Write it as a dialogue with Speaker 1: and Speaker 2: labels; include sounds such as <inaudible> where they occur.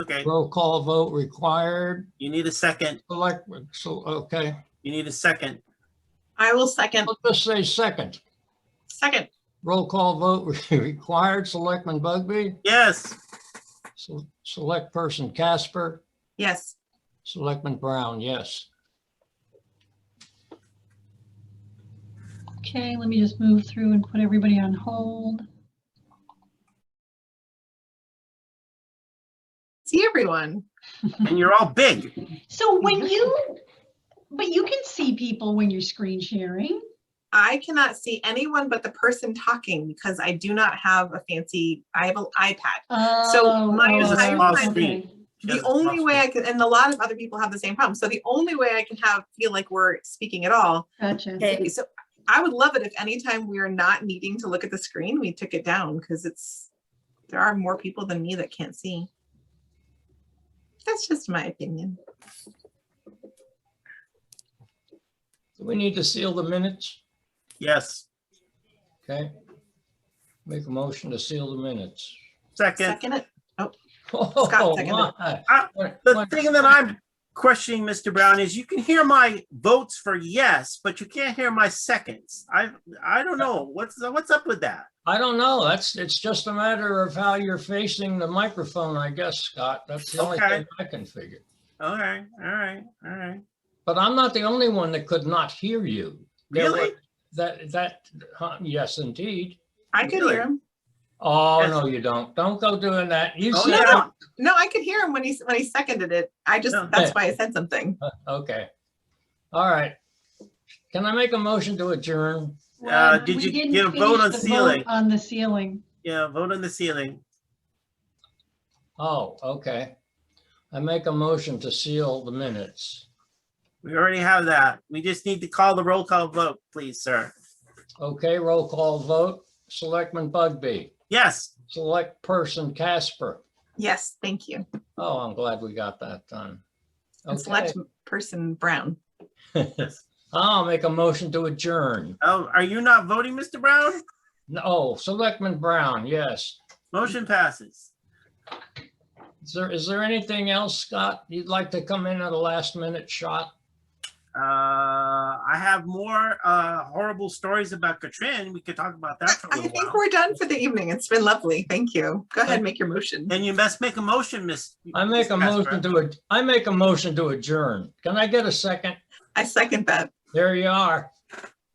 Speaker 1: Okay,
Speaker 2: Roll call vote required.
Speaker 1: you need a second.
Speaker 2: Select, so, okay,
Speaker 1: You need a second.
Speaker 3: I will second,
Speaker 2: let's just say second.
Speaker 3: second.
Speaker 2: Roll call vote <laughs> required. Selectman Bugby,
Speaker 1: Yes,
Speaker 2: Se- select person Casper,
Speaker 3: Yes,
Speaker 2: Selectman Brown, yes.
Speaker 4: Okay, let me just move through and put everybody on hold.
Speaker 3: see everyone.
Speaker 1: and you're all big.
Speaker 4: So when you, but you can see people when you're screen sharing.
Speaker 3: I cannot see anyone but the person talking because I do not have a fancy, I have an iPad.
Speaker 4: Oh,
Speaker 3: my
Speaker 4: oh,
Speaker 1: entire Small
Speaker 4: okay.
Speaker 1: screen. She
Speaker 3: The
Speaker 1: has a
Speaker 3: only way I
Speaker 1: crosswalk.
Speaker 3: can, and a lot of other people have the same problem. So the only way I can have, feel like we're speaking at all.
Speaker 4: Gotcha.
Speaker 3: So I would love it if anytime we are not needing to look at the screen, we took it down because it's, there are more people than me that can't see. That's just my opinion.
Speaker 2: Do we need to seal the minutes?
Speaker 1: Yes,
Speaker 2: Okay. Make a motion to seal the minutes. <laughs>
Speaker 1: second.
Speaker 3: Second it.
Speaker 2: Oh,
Speaker 3: seconded.
Speaker 2: my.
Speaker 1: Ah,
Speaker 2: What-
Speaker 1: The
Speaker 2: what-
Speaker 1: thing that I'm questioning, Mr. Brown, is you can hear my votes for yes, but you can't hear my seconds. I, I don't know. What's, what's up with that?
Speaker 2: I don't know. That's, it's just a matter of how you're facing the microphone, I guess, Scott. That's the only
Speaker 1: Okay.
Speaker 2: thing I can figure.
Speaker 1: All right, all right, all right.
Speaker 2: But I'm not the only one that could not hear you. There were-
Speaker 1: Really?
Speaker 2: That, that, huh, yes, indeed.
Speaker 3: I could
Speaker 1: Really?
Speaker 3: hear him.
Speaker 2: Oh,
Speaker 1: Yes.
Speaker 2: no, you don't. Don't go doing that. You
Speaker 1: Oh,
Speaker 2: said,
Speaker 1: yeah.
Speaker 3: No, I could hear him when he when he seconded it. I just
Speaker 1: Yeah.
Speaker 3: that's why I said something.
Speaker 2: okay. All right. Can I make a motion to adjourn?
Speaker 1: Uh,
Speaker 4: Well,
Speaker 1: did
Speaker 4: we
Speaker 1: you
Speaker 4: didn't
Speaker 1: get a vote
Speaker 4: finish
Speaker 1: on
Speaker 4: the
Speaker 1: ceiling?
Speaker 4: On the ceiling.
Speaker 1: Yeah, vote on the ceiling.
Speaker 2: Oh, okay. I make a motion to seal the minutes.
Speaker 1: We already have that. We just need to call the roll call vote, please, sir.
Speaker 2: Okay, roll call vote. Selectman Bugby,
Speaker 1: Yes,
Speaker 2: select person Casper.
Speaker 3: Yes, thank you.
Speaker 2: Oh, I'm glad we got that done.
Speaker 3: And
Speaker 2: Okay,
Speaker 3: select
Speaker 2: <laughs>
Speaker 3: person Brown.
Speaker 2: I'll make a motion to adjourn.
Speaker 1: oh, are you not voting, Mr. Brown?
Speaker 2: No, oh, Selectman Brown, yes.
Speaker 1: Motion passes.
Speaker 2: Is there, is there anything else, Scott, you'd like to come in at a last minute shot?
Speaker 1: Uh, I have more uh, horrible stories about Katrin. We could talk about that for a
Speaker 3: <laughs> I
Speaker 1: little
Speaker 3: think
Speaker 1: while.
Speaker 3: we're done for the evening. It's been lovely. Thank you. Go ahead,
Speaker 2: Thank-
Speaker 3: make your motion.
Speaker 1: Then you must make a motion, Miss.
Speaker 2: I make a
Speaker 1: Miss Casper.
Speaker 2: motion to, ad- I make a motion to adjourn. Can I get a second?
Speaker 3: I second that.
Speaker 2: There you are.